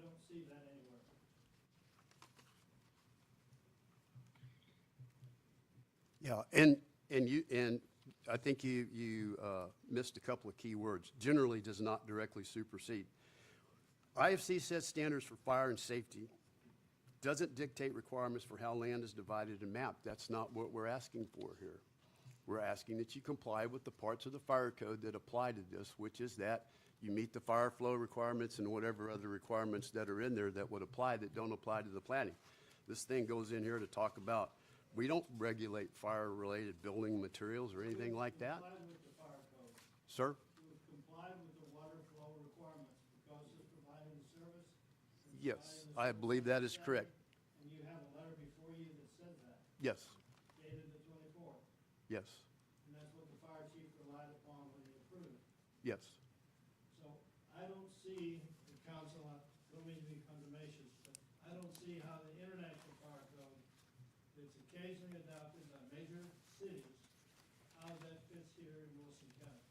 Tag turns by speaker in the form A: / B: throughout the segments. A: don't see that anywhere.
B: Yeah, and, and you, and I think you, you uh, missed a couple of key words. Generally does not directly supersede. IFC sets standards for fire and safety, doesn't dictate requirements for how land is divided and mapped. That's not what we're asking for here. We're asking that you comply with the parts of the fire code that apply to this, which is that you meet the fire flow requirements and whatever other requirements that are in there that would apply that don't apply to the planning. This thing goes in here to talk about, we don't regulate fire-related building materials or anything like that.
A: Comply with the fire code.
B: Sir?
A: It would comply with the water flow requirements because it's providing the service. and
B: Yes,
A: providing the
B: I believe that is correct.
A: service. And you have a letter before you that says that,
B: Yes,
A: dated the twenty-fourth,
B: yes,
A: and that's what the fire chief relied upon when he approved it.
B: yes.
A: So I don't see the council, I don't mean to be condemnations, but I don't see how the international fire code that's occasionally adopted by major cities, how that fits here in Wilson County.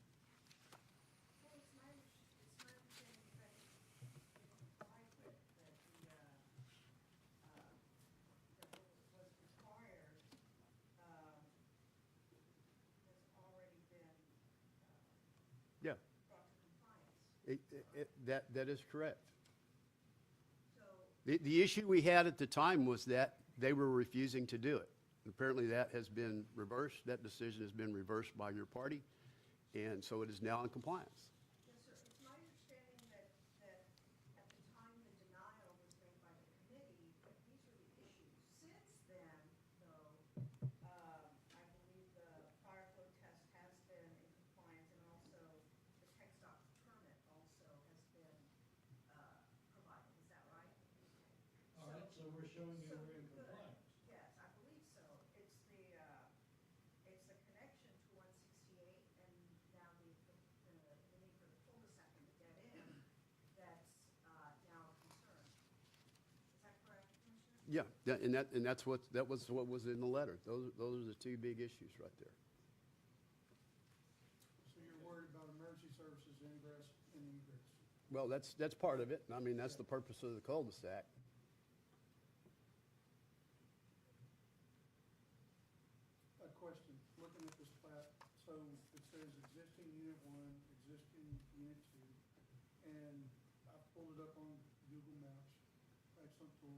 C: Well, it's my, it's my understanding that I put that the, uh, uh, that was required, um, has already been, uh,
B: Yeah,
C: brought to compliance.
B: it, it, that, that is correct.
C: So,
B: The, the issue we had at the time was that they were refusing to do it. Apparently, that has been reversed, that decision has been reversed by your party, and so it is now in compliance.
C: yes, sir, it's my understanding that, that at the time the denial was made by the committee, that these were the issues. Since then, though, um, I believe the fire flow test has been in compliance, and also the tech stop permit also has been uh, provided, is that right?
A: All right, so we're showing you we're in compliance.
C: Yes, I believe so. It's the, uh, it's the connection to one sixty-eight and now the, the, the need for the cul-de-sac and the dead end that's, uh, now a concern. Is that correct, Commissioner?
B: Yeah, that- and that, and that's what, that was what was in the letter. Those, those are the two big issues right there.
D: So you're worried about emergency services ingress and egress?
B: Well, that's, that's part of it, and I mean, that's the purpose of the cul-de-sac.
D: A question, looking at this plat, so it says existing unit one, existing unit two, and I pulled it up on Google Maps, that's something,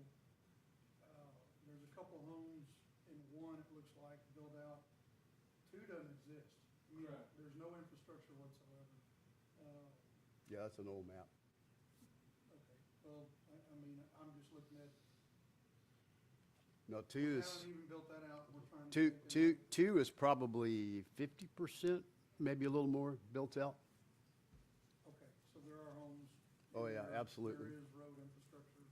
D: uh, there's a couple homes in one, it looks like, built out, two doesn't exist. I mean,
A: Correct.
D: There's no infrastructure whatsoever. Uh,
B: Yeah, that's an old map.
D: okay, well, I, I mean, I'm just looking at,
B: No,
D: we
B: two is,
D: haven't even built that out, we're trying to.
B: two,
D: make it-
B: two, two is probably fifty percent, maybe a little more, built out.
D: Okay, so there are homes.
B: Oh, yeah,
D: there-
B: absolutely.
D: There is road infrastructure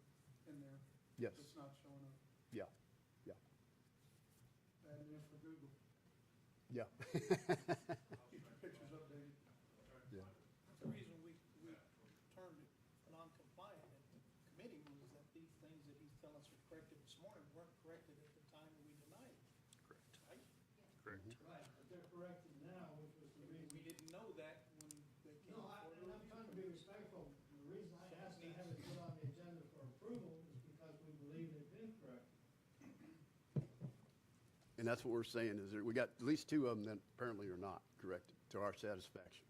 D: in there.
B: Yes,
D: It's not showing up.
B: yeah, yeah,
D: Bad news for Google.
B: yeah.
D: Keep your pictures updated.
E: The reason we, we turned it non-compliant at the committee was that these things that he's telling us are corrected this morning weren't corrected at the time we denied it. Correct. Right?
A: Right, but they're corrected now, which was the
E: We,
A: reason.
E: we didn't know that when they came
A: No, I,
E: forward.
A: and I'm trying to be respectful. The reason I asked to have it put on the agenda for approval is because we believe they've been corrected.
B: And that's what we're saying, is there, we got at least two of them that apparently are not corrected to our satisfaction.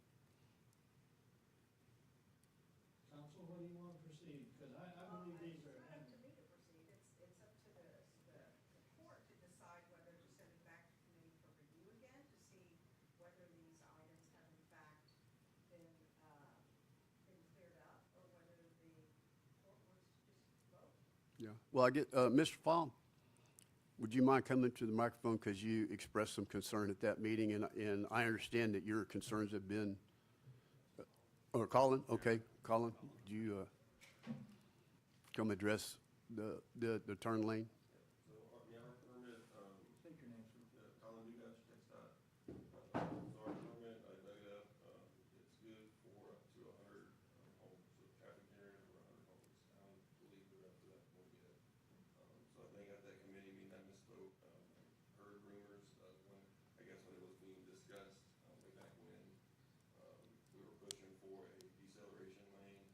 A: Council, what do you want to proceed? Because I, I believe these are.
C: It's not up to me to proceed, it's, it's up to the, the the court to decide whether to send it back to committee for review again, to see whether these items have in fact been, uh, been cleared up, or whether the court wants to just vote.
B: Yeah. Well, I get, uh, Mr. Fong, would you mind coming to the microphone because you expressed some concern at that meeting and, and I understand that your concerns have been, or Colin, okay, Colin, do you, uh, come address the, the, the turn lane?